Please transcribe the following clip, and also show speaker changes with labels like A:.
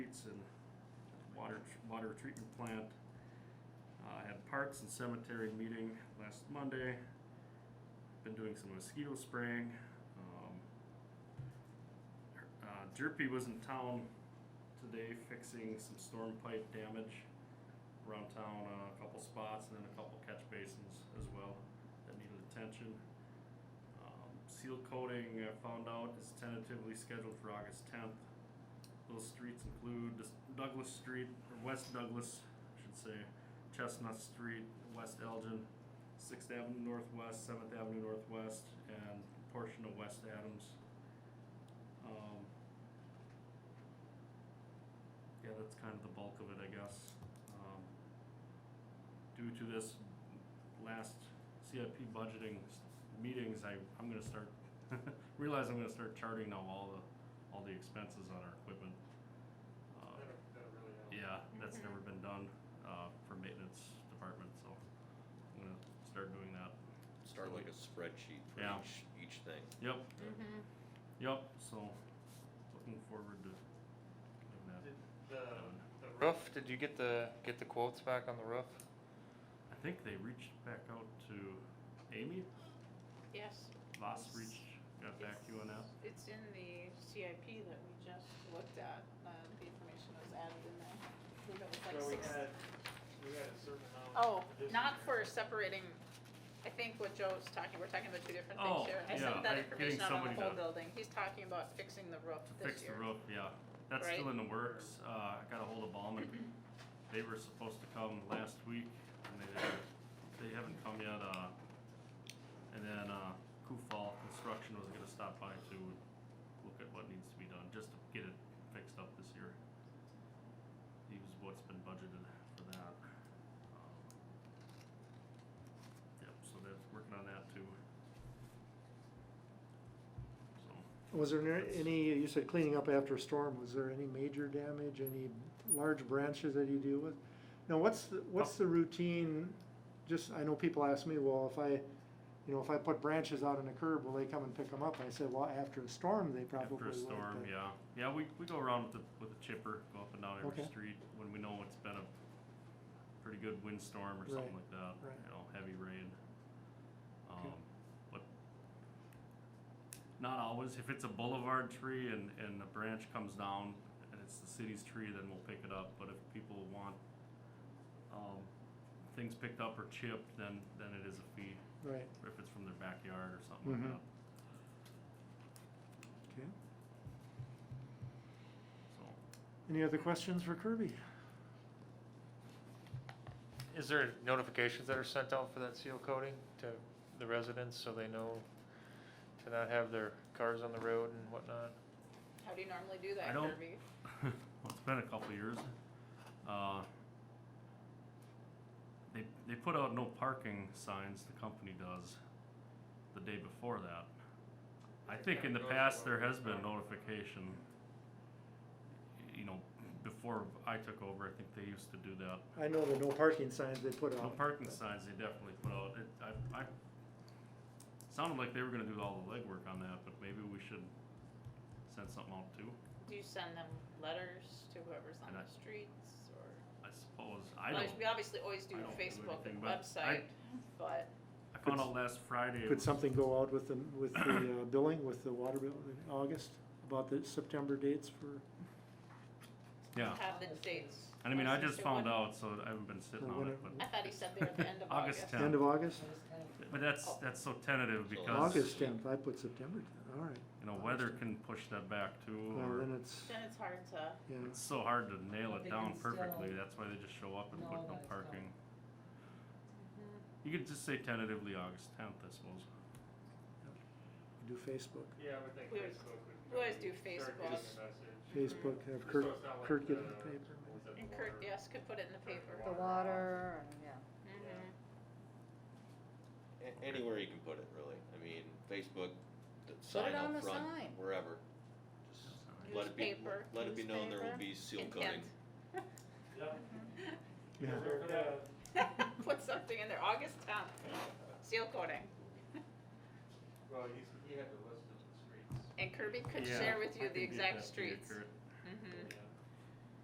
A: water treatment plant. Uh, I had parks and cemetery meeting last Monday. Been doing some mosquito spraying. Um, her- uh, Jerpy was in town today fixing some storm pipe damage around town, uh, a couple spots and then a couple catch basins as well that needed attention. Um, Seal coating, I found out, is tentatively scheduled for August tenth. Those streets include Dis- Douglas Street, or West Douglas, I should say, Chestnut Street, West Elgin, Sixth Avenue Northwest, Seventh Avenue Northwest, and portion of West Adams. Um, yeah, that's kind of the bulk of it, I guess. Um, due to this last CIP budgeting s- meetings, I, I'm gonna start, realize I'm gonna start charting now all the, all the expenses on our equipment. Uh,
B: That'll, that'll really help.
A: yeah, that's
C: Mhm.
A: never been done, uh, for maintenance department, so I'm gonna start doing that.
D: Start like a spreadsheet for
A: Yeah.
D: each, each thing.
A: Yep,
C: Mm-hmm.
A: yep, so looking forward to getting that
B: Did the,
A: done.
B: the
E: Roof,
B: roof,
E: did you get the, get the quotes back on the roof?
A: I think they reached back out to Amy,
C: Yes.
A: Voss reached, got back to you on that.
C: It's in the CIP that we just looked at, uh, the information that was added in there. I believe it was like
B: so we
C: six-
B: had, we had a certain amount. of
C: Oh,
B: this
C: not
B: year.
C: for separating, I think what Joe's talking, we're talking about two different
A: Oh,
C: things here. I
A: yeah,
C: sent
A: I-
C: that
A: getting
C: information out on
A: somebody
C: the whole
A: to-
C: building. He's talking about fixing the roof
A: To fix
C: this
A: the
C: year.
A: roof, yeah. That's still
C: Right?
A: in the works. Uh, I got a hold of Ballman. They were supposed to come last week and they, didn't- they haven't come yet, uh. And then, uh, Kufal Construction was gonna stop by to look at what needs to be done, just to get it fixed up this year. He was what's been budgeted for that. Um, Yep, so that's, working on that too. So.
F: Was there ner-
A: That's-
F: any, you said cleaning up after a storm, was there any major damage, any large branches that you deal with? Now, what's, the- what's the routine, just, I know people ask me, well, if I, you know, if I put branches out on the curb, will they come and pick them up? I said, well, after a storm, they probably would.
A: After a storm,
F: but-
A: yeah. Yeah, we, we go around with the, with the chipper, go up and down every
F: Okay.
A: street when we know it's been a pretty good windstorm or something
F: Right,
A: like that,
F: right.
A: you know, heavy rain. Um, but not always. If it's a boulevard tree and, and the branch comes down and it's the city's tree, then we'll pick it up. But if people want, um, things picked up or chipped, then, then it is a fee,
F: Right,
A: or if it's from their backyard or something like
F: Mhm.
A: that.
F: okay.
A: So,
F: Any other questions for Kirby?
E: Is there notifications that are sent out for that seal coating to the residents so they know to not have their cars on the road and whatnot?
C: How do you normally do that,
A: I don't-
C: Kirby?
A: well, it's been a couple years. Uh, they they put out no parking signs. The company does the day before that. I think in the past there has been notification. You know, before I took over, I think they used to do that.
F: I know the no parking signs they put
A: No
F: out.
A: parking signs they definitely put out. It, I, I sounded like they were going to do all the legwork on that, but maybe we should send something out too.
C: Do you send them letters to whoever's on
A: And I-
C: the streets or?
A: I suppose I
C: Well,
A: don't.
C: We obviously always do
A: I don't do
C: Facebook
A: anything,
C: and
A: but I-
C: website, but
A: I found out last Friday.
F: Could
A: was-
F: something go out with the, with the uh, billing, with the water bill in August, about the September dates for?
A: Yeah,
C: have the dates.
A: and I mean, I
C: listed
A: just
C: to
A: found
C: what-
A: out, so I haven't been sitting
F: Or
A: on it,
F: whatever.
C: I
A: but,
C: thought he said they're at the end of
A: August
C: August.
A: 10th.
F: End of August?
A: but that's,
C: Oh.
A: that's so tentative
D: So-
A: because,
F: August
A: you
F: tenth, I put September tenth, all right.
A: know, weather can push that back too,
F: Well,
A: or
F: then it's,
C: Then it's hard to,
F: yeah,
A: it's so hard to nail it
G: They
A: down
G: can still-
A: perfectly, that's why they just show up and
G: No,
A: put no
G: that's not-
A: parking. You could just say tentatively August tenth, I suppose.
F: do Facebook.
B: Yeah, I would think
C: We always-
B: Facebook would.
C: we always
B: probably
C: do
B: start
C: Facebook.
B: getting the message.
F: Facebook, have Kurt,
B: So it's not like
F: Kurt get in the paper.
B: what was it,
C: and
B: the
C: Kurt,
B: water-
C: yes, could put it in the paper.
G: The water, and, yeah.
C: Mhm.
D: A- Anywhere you can put it, really. I mean, Facebook, the
G: Put
D: sign
G: it on
D: out
G: the
D: front,
G: sign.
D: wherever. Just let it be,
C: Newspaper,
D: let it be known there will
C: newspaper.
D: be seal coating.
C: Intent.
B: Yeah.
F: Yeah.
B: They're gonna-
C: Put something in there, August tenth, seal coating.
B: Well, he's, he had the list of the streets.
C: And Kirby could
A: Yeah,
C: share with
A: I
C: you
A: can
C: the
A: get
C: exact
A: that to you,
C: streets.
A: Kurt.
C: Mhm.